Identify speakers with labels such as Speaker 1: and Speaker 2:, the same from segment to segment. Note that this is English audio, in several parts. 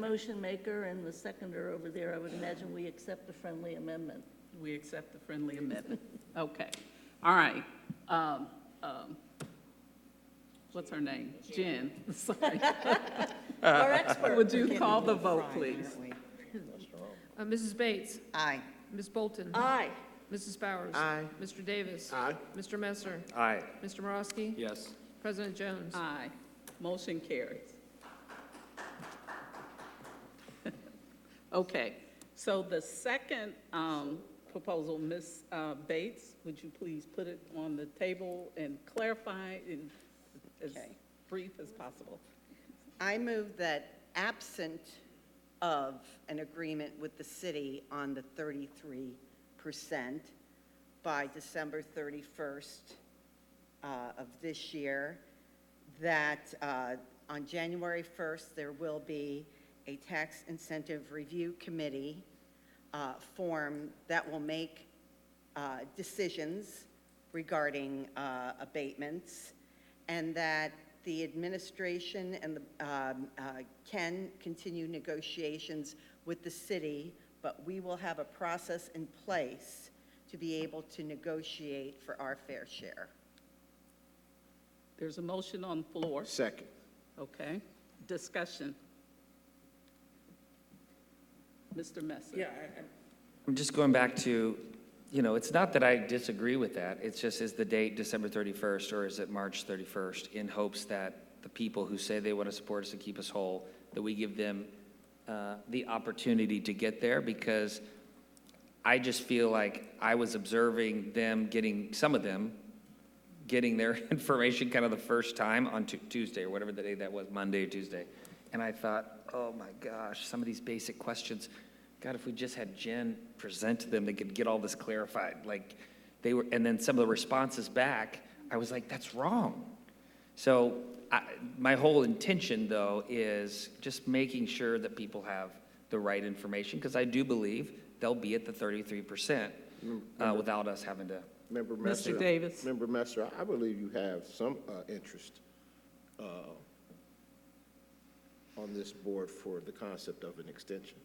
Speaker 1: Motion maker and the seconder over there, I would imagine we accept the friendly amendment.
Speaker 2: We accept the friendly amendment. Okay, all right. Um, um, What's her name? Jen, sorry.
Speaker 1: Our expert.
Speaker 2: Would you call the vote, please?
Speaker 3: Uh, Mrs. Bates.
Speaker 4: Aye.
Speaker 3: Ms. Bolton.
Speaker 1: Aye.
Speaker 3: Mrs. Bowers.
Speaker 4: Aye.
Speaker 3: Mr. Davis.
Speaker 5: Aye.
Speaker 3: Mr. Messer.
Speaker 5: Aye.
Speaker 3: Mr. Morosky.
Speaker 5: Yes.
Speaker 3: President Jones.
Speaker 2: Aye. Motion carries. Okay, so the second um, proposal, Ms. uh, Bates, would you please put it on the table and clarify in as
Speaker 4: Okay.
Speaker 2: brief as possible?
Speaker 4: I move that absent of an agreement with the city on the 33% by December 31st uh, of this year, that uh, on January 1st, there will be a tax incentive review committee uh, formed that will make uh, decisions regarding uh, abatements, and that the administration and the, um, uh, can continue negotiations with the city, but we will have a process in place to be able to negotiate for our fair share.
Speaker 2: There's a motion on the floor.
Speaker 5: Second.
Speaker 2: Okay, discussion. Mr. Messer? Yeah.
Speaker 6: I'm just going back to, you know, it's not that I disagree with that. It's just, is the date December 31st or is it March 31st? In hopes that the people who say they want to support us and keep us whole, that we give them uh, the opportunity to get there because I just feel like I was observing them getting, some of them, getting their information kind of the first time on Tu- Tuesday or whatever the day that was, Monday or Tuesday. And I thought, oh my gosh, some of these basic questions, God, if we just had Jen present to them, they could get all this clarified. Like, they were, and then some of the responses back, I was like, that's wrong. So I, my whole intention, though, is just making sure that people have the right information, because I do believe they'll be at the 33% uh, without us having to
Speaker 5: Member
Speaker 2: Mr.
Speaker 5: Messer. uh,
Speaker 2: Davis.
Speaker 5: Member Messer, I believe you have some uh, interest uh, on this board for the concept of an extension,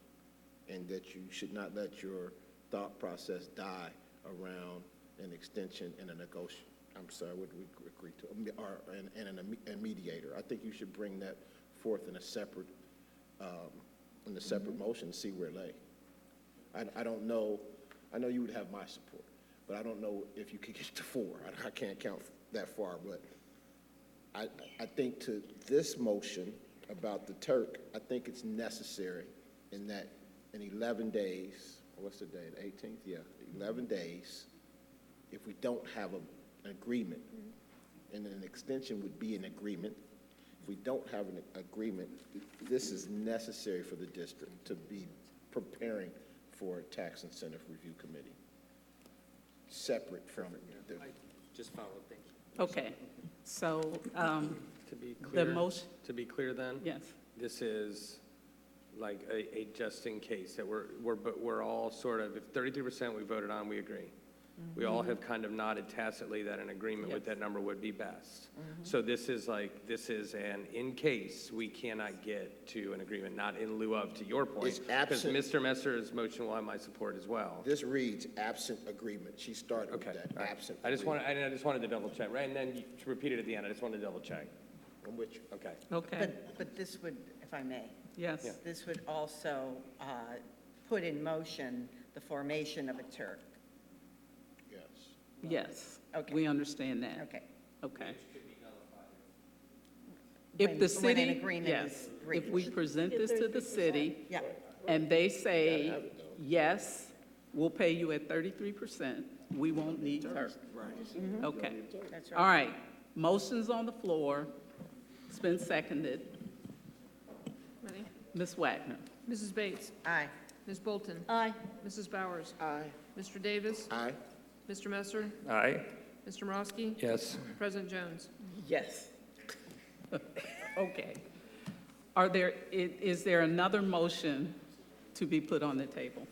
Speaker 5: and that you should not let your thought process die around an extension and a negotiation. I'm sorry, what do we agree to? Um, Or, and, and an imme- a mediator. I think you should bring that forth in a separate, um, in a separate motion, see where it lay. I, I don't know, I know you would have my support, but I don't know if you could get to four. I, I can't count that far, but I, I think to this motion about the Turk, I think it's necessary in that in eleven days, what's the date, eighteenth, yeah, eleven days, if we don't have a, an agreement, and an extension would be an agreement, if we don't have an agreement, this is necessary for the district to be preparing for a tax incentive review committee, separate from the
Speaker 2: Okay, so, um,
Speaker 7: To be clear.
Speaker 2: motion-
Speaker 7: To be clear then?
Speaker 2: yes,
Speaker 7: This is like a, a just in case that we're, we're, but we're all sort of, if thirty-three percent we voted on, we agree. We all have kind of nodded tacitly that an agreement with
Speaker 2: Yes.
Speaker 7: that number would be best. So this is like, this is an in case we cannot get to an agreement, not in lieu of, to your point.
Speaker 5: It's absent-
Speaker 7: Because Mr. Messer's motion will have my support as well.
Speaker 5: This reads absent agreement. She started with
Speaker 7: Okay.
Speaker 5: that,
Speaker 7: all right.
Speaker 5: absent.
Speaker 7: I just want,
Speaker 5: agreement.
Speaker 7: I I just wanted to double check, right? And then you repeat it at the end. I just wanted to double check.
Speaker 5: I'm with you.
Speaker 7: Okay.
Speaker 2: okay,
Speaker 4: But, but this would, if I may,
Speaker 2: yes.
Speaker 4: this would also uh, put in motion the formation of a Turk.
Speaker 5: Yes.
Speaker 2: Yes.
Speaker 4: Okay.
Speaker 2: We understand that.
Speaker 4: Okay.
Speaker 2: Okay.
Speaker 4: When-
Speaker 2: If the
Speaker 4: when
Speaker 2: city.
Speaker 4: an agreement
Speaker 2: yes,
Speaker 4: is reached.
Speaker 2: If we present this to the city
Speaker 4: Yeah,
Speaker 2: and they say, yes, we'll pay you at thirty-three percent, we won't need Turk. Right. Okay.
Speaker 4: that's
Speaker 2: All
Speaker 4: right.
Speaker 2: right. Motion's on the floor. It's been seconded.
Speaker 3: Ready?
Speaker 2: Ms. Wagner.
Speaker 3: Mrs. Bates.
Speaker 4: Aye.
Speaker 3: Ms. Bolton.
Speaker 1: Aye.
Speaker 3: Mrs. Bowers.
Speaker 5: Aye.
Speaker 3: Mr. Davis.
Speaker 5: Aye.
Speaker 3: Mr. Messer.
Speaker 6: Aye.
Speaker 3: Mr. Morosky.
Speaker 7: Yes.
Speaker 3: President Jones.
Speaker 2: Yes. Okay. Are there, i- is there another motion to be put on the table?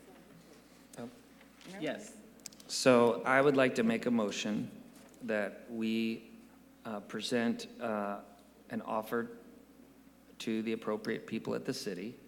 Speaker 2: Yes.
Speaker 6: So I would like to make a motion that we uh, present uh, an offer to the appropriate people at the city